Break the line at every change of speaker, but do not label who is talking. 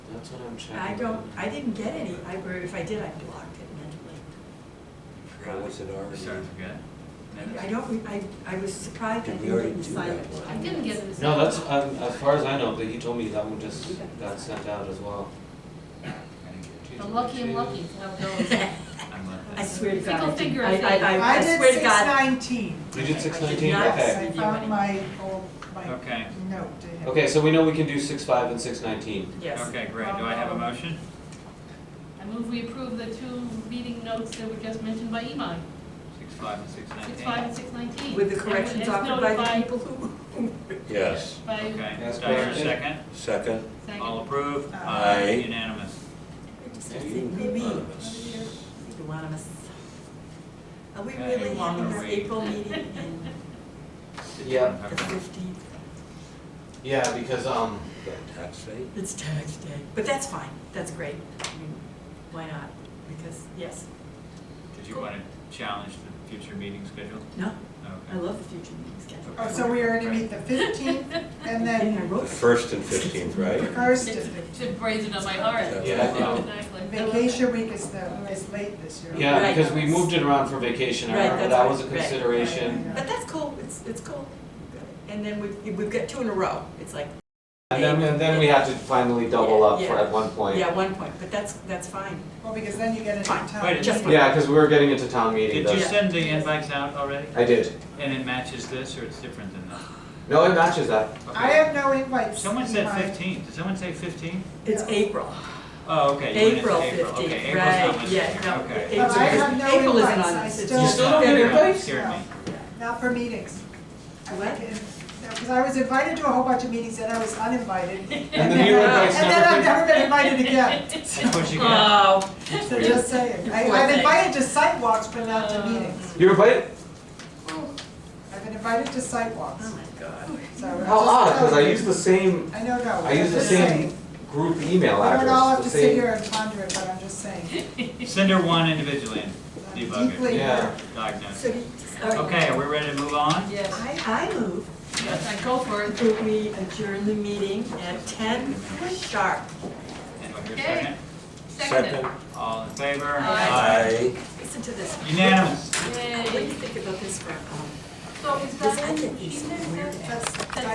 That's what I'm checking.
I don't, I didn't get any, I, or if I did, I blocked it mentally.
Or was it already?
Sorry, I forgot. Minutes?
I don't, re- I, I was surprised I
Did we
didn't
already
get the
do that
silent.
one?
I didn't get it.
No, that's, um, as far as I know, but he told me that one just got sent out as well.
I didn't get it.
I'm lucky and lucky to have those.
I'm left
I
out.
swear to God.
Fickle
I didn't-
finger,
I, I, I-
I
I
did
swear to
six
God.
nineteen.
You did six nineteen,
not
okay.
I
send you any.
found my old, my note
Okay.
to him.
Okay, so we know we can do six five and six nineteen.
Yes.
Okay, great. Do I have a motion?
I move we approve the two meeting notes that were just mentioned by Imai,
Six five and six nineteen?
six five and six nineteen.
With the corrections offered by the people who, who-
Yes,
By,
Okay.
Yes,
Do I hear a
correction.
second?
second.
All
second,
approved?
Aye.
Unanimous.
We're discussing Mimi,
Unanimous.
Duanamis. Are we
Okay,
really having
I'm gonna
this
wait.
April meeting in
Yeah.
the fifteenth?
Yeah, because, um,
Tax rate?
It's tax day, but that's fine, that's great. I mean, Why not? Because, yes,
Did you want to challenge the future meeting schedule?
no, I
Okay.
love the future meeting schedule.
Oh, so we are gonna meet the fifteenth and
And I
then
wrote,
First and fifteenth, right?
first,
it's,
and
it's brazen on my heart.
Yeah, I know.
Exactly.
vacation week is the, is late this year.
yeah,
Right.
because we moved it around for vacation, I
Right,
remember,
that's
that
right,
was a
right.
consideration.
but that's cool, it's, it's cool. And then we've, we've got two in a row, it's like,
And then, and then we had to finally double up for, at one point.
yeah, one point, but that's, that's fine.
Well, because then you get into
Fine.
town.
Wait a
meeting.
Just-
Yeah, because we were getting into town meeting,
Did you
though.
send the invites out already?
I did.
And it matches this or it's different than that?
No, it matches that.
Okay.
I have no invites.
Someone
in
said
my-
fifteen. Did someone say fifteen?
It's April,
Oh, okay. you went into
April
Okay,
fifteenth,
April's not
right,
listed
yeah,
here.
no.
Okay.
April
But I
is-
have no
April isn't
invites,
on
I
this, it's
still
just
You still don't get
February.
invites? Scared me.
Not for meetings. I
What?
went in, because I was invited to a whole bunch of meetings and I was uninvited.
And the new invites
And then I've
never
never been invited again,
That's what you got.
Oh,
so just saying. I- I've invited to site walks, but not
Uh,
to meetings.
came. You were playing?
I've been invited to site walks.
oh my God.
so I'm
How
just
odd, because I
telling you.
use the same
I know, no.
I use
I'm
the
just
same
saying.
group email
We
address,
don't all have
the
to sit
same.
here and ponder it, but I'm just saying.
Uh.
Send her one individually and
I'm
debug
Deeply.
it,
Yeah.
diagnose.
So,
it.
do you- all right.
Okay, are we ready to move on?
Yes,
I, I move
yes, I go for it.
that we adjourn the meeting at ten sharp.
Anyone here
Okay.
second?
Seconded.
All in favor?
Aye.
Aye.
Listen to this.
Unanimous.
What do you
Yay.
think about this for, um,
So is
this, I
that,
think
she
is
said
weird.
that-
That's-
that